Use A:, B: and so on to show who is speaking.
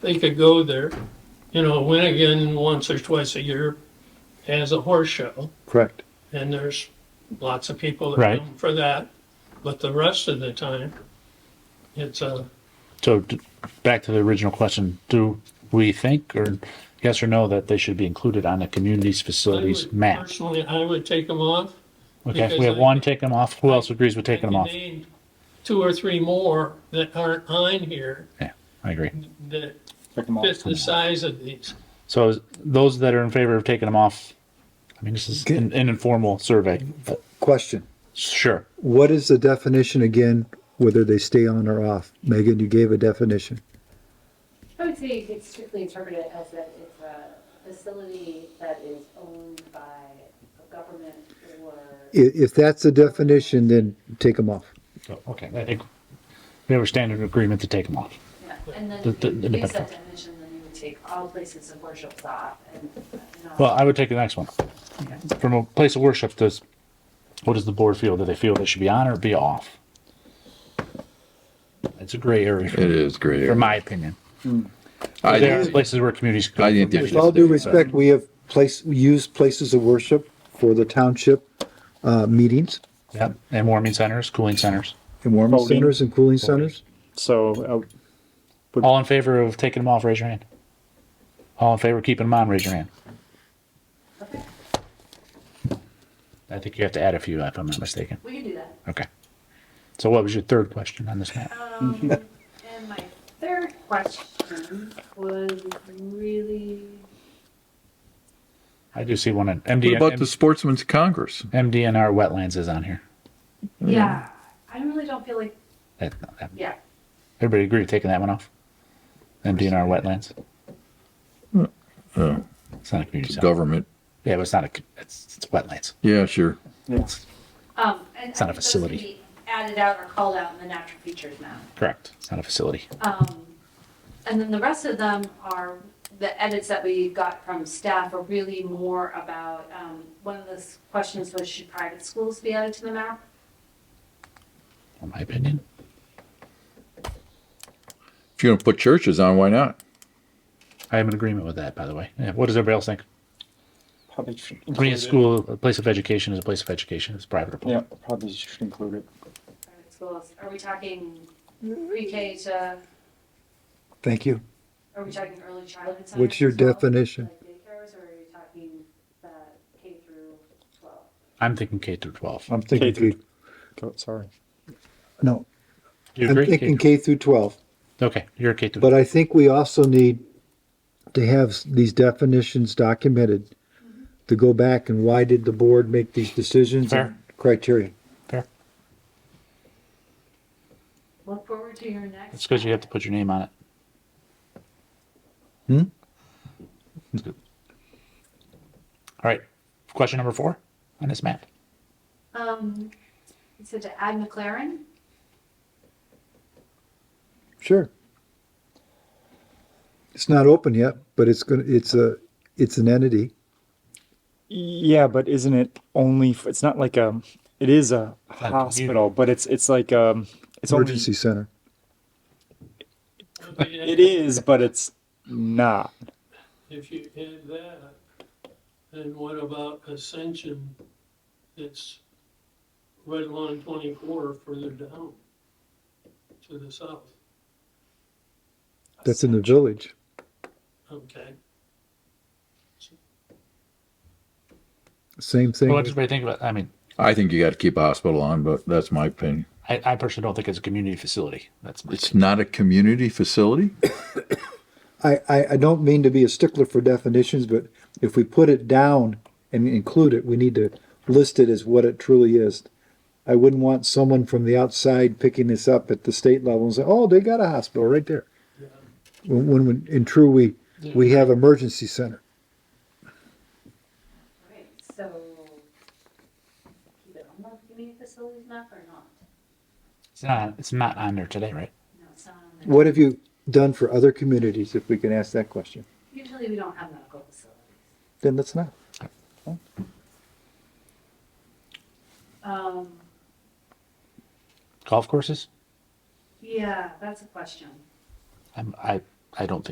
A: they could go there. You know, Winnigan once or twice a year has a horse show,
B: Correct.
A: and there's lots of people that
C: Right.
A: come for that. But the rest of the time, it's uh, a
C: So d- back to the original question, do we think or yes or no that they should be included on the community's facilities map?
A: Personally, I would take them off.
C: Okay,
A: because
C: we have
A: I-
C: one, take them off. Who else agrees with taking them
A: I
C: off?
A: can name Two or three more that aren't on here
C: Yeah, I agree.
A: that
B: Check them
A: fit the size of these.
C: So is- those that are in favor of taking them off, I mean, this is an, an informal survey. but
B: Question.
C: Sure.
B: What is the definition again, whether they stay on or off? Megan, you gave a definition.
D: I would say it's strictly interpreted as that it's a facility that is owned by a government or.
B: I- if that's the definition, then take them off.
C: So, Okay, I think we have a standard agreement to take them off.
D: Yeah, And then
C: The- the-
D: if you use
C: the-
D: that definition, then you would take all places of worship off and. and all-
C: Well, I would take the next one. From a place of worship, does, what does the board feel? Do they feel they should be on or be off? It's a gray area,
E: It is great.
C: in my opinion.
E: I
C: There are
E: think,
C: places where communities.
E: I think they
B: With all
E: should
B: due
E: do
B: respect, we have place, we use places of worship for the township, uh, meetings
C: Yep, and warming centers, cooling centers.
B: and warming
F: Voting.
B: centers and cooling centers.
F: So,
C: All in favor of taking them off, raise your hand. All in favor of keeping them on, raise your hand.
D: Okay,
C: I think you have to add a few if I'm not mistaken.
D: We can do that.
C: Okay. So what was your third question on this map?
D: Um, and my third question was really,
C: I do see one in
E: What
C: MDN,
E: about the Sportsman's Congress?
C: MDNR wetlands is on here. Mm.
D: yeah, I really don't feel like,
C: That, that,
D: yeah,
C: everybody agree taking that one off? MDNR wetlands.
E: Oh,
C: It's not a community
E: it's
C: center.
E: government.
C: Yeah, but it's not a. co- It's, it's wetlands.
E: Yeah, sure.
D: um, and.
C: It's not a
D: I think those can
C: facility.
D: be Added out or called out in the natural features map.
C: Correct. It's not a facility.
D: Um, and then the rest of them are, the edits that we got from staff are really more about, um, one of the s- questions was, should private schools be added to the map?
C: In my opinion,
E: If you're going to put churches on, why not?
C: I am in agreement with that. By the way, yeah, what does everybody else think?
F: probably should include
C: I mean, a school, a place of education is a place of education. It's private or
F: it.
C: public.
F: Yeah, probably should include it.
D: Private schools, are we talking pre-K to,
B: Thank you.
D: are we talking early childhood centers?
B: What's your
D: as well?
B: definition?
D: Like daycares, or are you talking the K through twelve?
C: I'm thinking K through 12.
B: I'm thinking,
F: K through-
B: K-
F: Go- Sorry.
B: no,
C: Do you
B: I'm
C: agree? K
B: thinking
C: through-
B: K through twelve.
C: okay, you're a K through.
B: But I think we also need to have s- these definitions documented, to go back and why did the board make these decisions and
C: Fair.
B: criteria?
D: Look forward to your next.
C: It's because you have to put your name on it.
B: Hmm?
C: That's good. All right. Question number four on this map.
D: Um, so to add McLaren,
B: Sure. It's not open yet, but it's gonna, it's a, it's an entity.
F: Yeah, but isn't it only? f it's not like a. It is a
C: you-
F: hospital, but it's it's like um. It's only.
B: emergency center.
F: It is, but it's not.
A: If you add that, then what about Ascension that's right along twenty-four further down to the south?
B: That's in the village.
A: Okay,
B: Same thing.
C: Well, what does everybody think about? I mean,
E: I think you got to keep a hospital on, but that's my opinion.
C: I, I personally don't think it's a community facility. That's my
E: It's not a community facility.
B: I, I, I don't mean to be a stickler for definitions, but if we put it down and include it, we need to list it as what it truly is. I wouldn't want someone from the outside picking this up at the state level and say, oh, they got a hospital right there. When, when, when- in true, we, we have emergency center.
D: right, so keep it on the community facilities map or not?
C: It's not. It's not on there today, right?
D: No, it's not on there.
B: What have you done for other communities, if we can ask that question?
D: Usually we don't have medical facilities.
B: Then let's not.
D: Um,
C: Golf courses?
D: yeah, that's a question.
C: I'm, I I don't think.